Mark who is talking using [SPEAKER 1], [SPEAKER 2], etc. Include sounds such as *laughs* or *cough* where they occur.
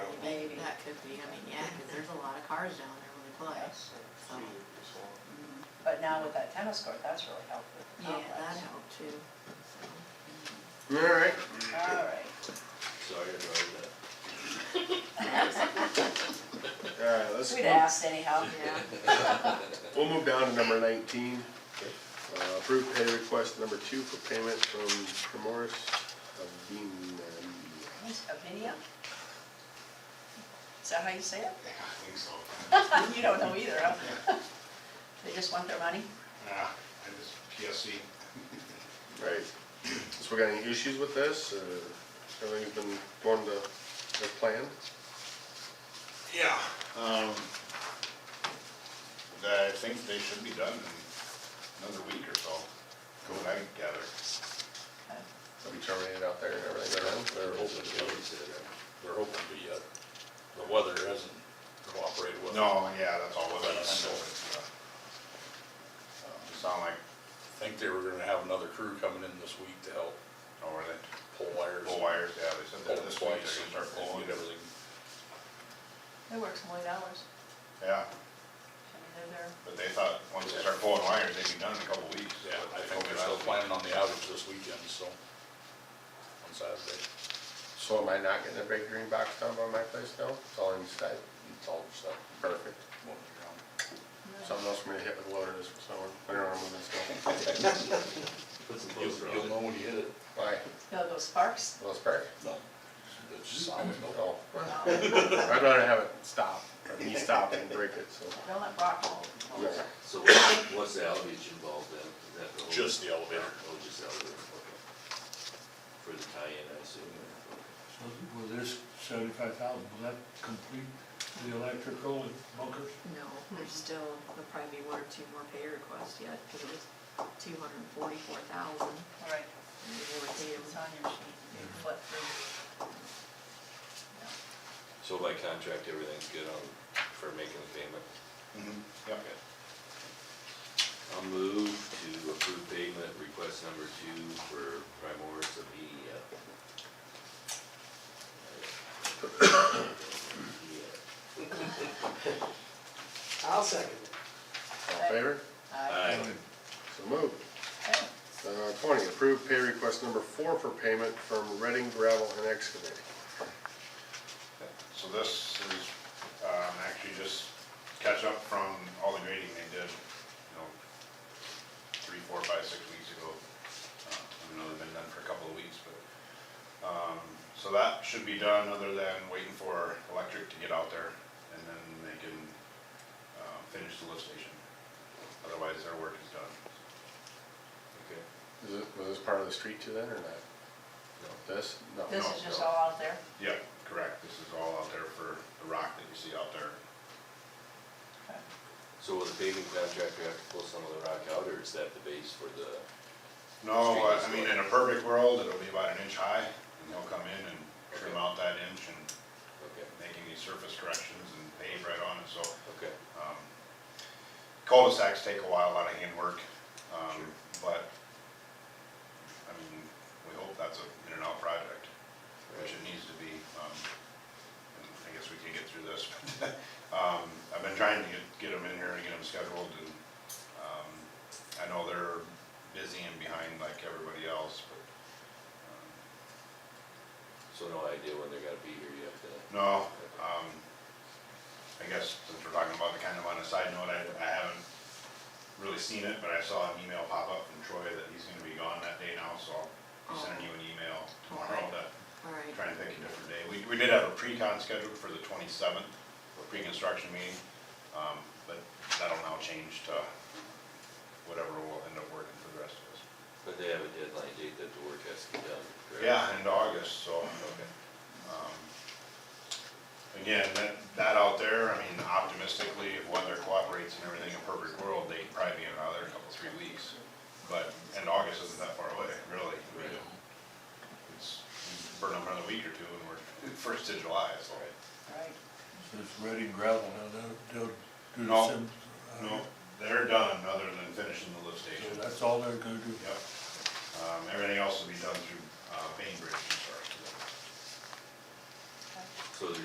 [SPEAKER 1] could be, I mean, yeah, because there's a lot of cars down there when they play. So, mm,
[SPEAKER 2] But now with that tennis court, that's really helped with the
[SPEAKER 1] Yeah, that
[SPEAKER 2] complex.
[SPEAKER 1] helped too, so.
[SPEAKER 3] Alright.
[SPEAKER 2] All right.
[SPEAKER 4] Sorry, I drove
[SPEAKER 3] Alright, Uh, let's,
[SPEAKER 2] We'd
[SPEAKER 3] move-
[SPEAKER 2] asked anyhow.
[SPEAKER 1] Yeah.
[SPEAKER 3] we'll move down to number nineteen. Uh, Approved pay request number two for payment from Primoris of Dean.
[SPEAKER 2] What's A video? Is that how you say
[SPEAKER 5] Yeah, I think so.
[SPEAKER 2] it? *laughs* You don't know either, huh? *laughs* They just want their money?
[SPEAKER 5] Nah, I just PSC.
[SPEAKER 3] Right. So we got any issues with this? Uh, Everything's been going to, to plan?
[SPEAKER 5] Yeah. um, I think they should be done in another week or so, from what I gather.
[SPEAKER 3] Have you terminated out there and everything?
[SPEAKER 4] that. They're hoping to, they're hoping to, uh, the weather hasn't cooperated with them.
[SPEAKER 5] No, yeah, that's all what I know.
[SPEAKER 4] That's-
[SPEAKER 5] It's, uh, uh, it Sound like,
[SPEAKER 4] I think they were gonna have another crew coming in this week to help
[SPEAKER 5] oh, were they,
[SPEAKER 4] pull wires.
[SPEAKER 5] pull wires, yeah, they
[SPEAKER 4] Pull
[SPEAKER 5] said that
[SPEAKER 4] them
[SPEAKER 5] this week
[SPEAKER 4] twice
[SPEAKER 5] they're gonna
[SPEAKER 4] and
[SPEAKER 5] start pulling.
[SPEAKER 4] get everything.
[SPEAKER 2] They work some late hours.
[SPEAKER 5] Yeah,
[SPEAKER 2] I mean, they're there.
[SPEAKER 5] but they thought, once they start pulling wires, they'd be done in a couple weeks.
[SPEAKER 4] Yeah,
[SPEAKER 5] but
[SPEAKER 4] I
[SPEAKER 5] they hope
[SPEAKER 4] think they're
[SPEAKER 5] not.
[SPEAKER 4] still planning on the outage this weekend, so. On Saturday.
[SPEAKER 3] So am I not getting a big green box down by my place now? It's all inside, it's all stuff, perfect.
[SPEAKER 4] won't be around.
[SPEAKER 3] Something else for me to hit with a loader this summer, winter arm with this stuff.
[SPEAKER 4] You'll, you'll know when you hit it.
[SPEAKER 3] Why?
[SPEAKER 2] No, those sparks?
[SPEAKER 3] Well, it's perfect.
[SPEAKER 4] No. It's solid, no.
[SPEAKER 3] Oh,
[SPEAKER 2] No,
[SPEAKER 3] I'd rather have it stop, or me stop and break it, so.
[SPEAKER 2] Don't let rock hold.
[SPEAKER 3] Yeah.
[SPEAKER 6] So what's what's the outage involved then? Is that the whole-
[SPEAKER 4] Just the elevator.
[SPEAKER 6] Oh, just the elevator, okay. For the tie-in, I assume, or- okay.
[SPEAKER 7] So Was this seventy-five thousand, was that complete, the electrical and bunkers?
[SPEAKER 1] No, there's still, there'll probably be one or two more pay requests yet, because it was two hundred and forty-four thousand,
[SPEAKER 2] All right,
[SPEAKER 1] and we were due.
[SPEAKER 2] it's on your sheet. You can flip through. Yeah.
[SPEAKER 6] So by contract, everything's good on, for making the payment?
[SPEAKER 5] Mhm, Yep.
[SPEAKER 6] Okay. I'll move to approve payment request number two for Primoris of E.
[SPEAKER 8] I'll second it.
[SPEAKER 3] All in favor?
[SPEAKER 2] Aye.
[SPEAKER 6] Aye.
[SPEAKER 3] So moved.
[SPEAKER 2] Okay.
[SPEAKER 3] Uh, twenty, approved pay request number four for payment from Reading Gravel and Excavating.
[SPEAKER 5] So this is, um, actually just catch up from all the grading they did, you know, three, four, five, six weeks ago. Uh, I know they've been done for a couple of weeks, but, um, so that should be done other than waiting for electric to get out there and then they can, uh, finish the lift station. Otherwise their work is done.
[SPEAKER 6] Okay.
[SPEAKER 3] Is it, was this part of the street too then, or not? This? No.
[SPEAKER 2] This
[SPEAKER 5] No,
[SPEAKER 2] is just
[SPEAKER 5] no.
[SPEAKER 2] all out there?
[SPEAKER 5] Yeah, correct. This is all out there for the rock that you see out there.
[SPEAKER 2] Okay.
[SPEAKER 6] So will the paving contractor have to pull some of the rock out, or is that the base for the?
[SPEAKER 5] No,
[SPEAKER 6] Street
[SPEAKER 5] I
[SPEAKER 6] is
[SPEAKER 5] I mean,
[SPEAKER 6] low.
[SPEAKER 5] in a perfect world, it'll be about an inch high, and they'll come in and trim
[SPEAKER 6] Okay.
[SPEAKER 5] out that inch and
[SPEAKER 6] Okay,
[SPEAKER 5] make any surface corrections and pave right on it, so.
[SPEAKER 6] okay.
[SPEAKER 5] um, Cul-de-sacs take a while, a lot of handwork, um,
[SPEAKER 6] Sure.
[SPEAKER 5] but, I mean, we hope that's a in and out project, which it needs to be. um, and I guess we can get through this. *laughs* Um, I've been trying to get, get them in here and get them scheduled, and um, I know they're busy and behind like everybody else, but um,
[SPEAKER 6] So no idea when they're gonna be here yet, uh, then?
[SPEAKER 5] No, um, I guess since we're talking about it, kind of on a side note, I, I haven't really seen it, but I saw an email pop up from Troy that he's gonna be gone that day now, so I'll be sending you an email tomorrow to
[SPEAKER 1] All right.
[SPEAKER 5] try and pick a different day. We, we did have a pre-con scheduled for the twenty-seventh, a pre-construction meeting, um, but that'll now change to whatever will end up working for the rest of us.
[SPEAKER 6] But they have a deadline date that the work has to be done, correct?
[SPEAKER 5] Yeah, in August, so.
[SPEAKER 6] Okay.
[SPEAKER 5] Um, Again, that, that out there, I mean, optimistically, if weather cooperates and everything in perfect world, they'd probably be another couple, three weeks. But, and August isn't that far away, really. I mean, It's, burn them another week or two and we're first of July, so.
[SPEAKER 2] All right.
[SPEAKER 7] So it's ready and gravel, now they'll, they'll do
[SPEAKER 5] No.
[SPEAKER 7] the sim. uh,
[SPEAKER 5] No, they're done, other than finishing the lift station.
[SPEAKER 7] So that's all they're gonna do.
[SPEAKER 5] Yep. Um, everything else will be done through, uh, Bainbridge, sorry.
[SPEAKER 6] So the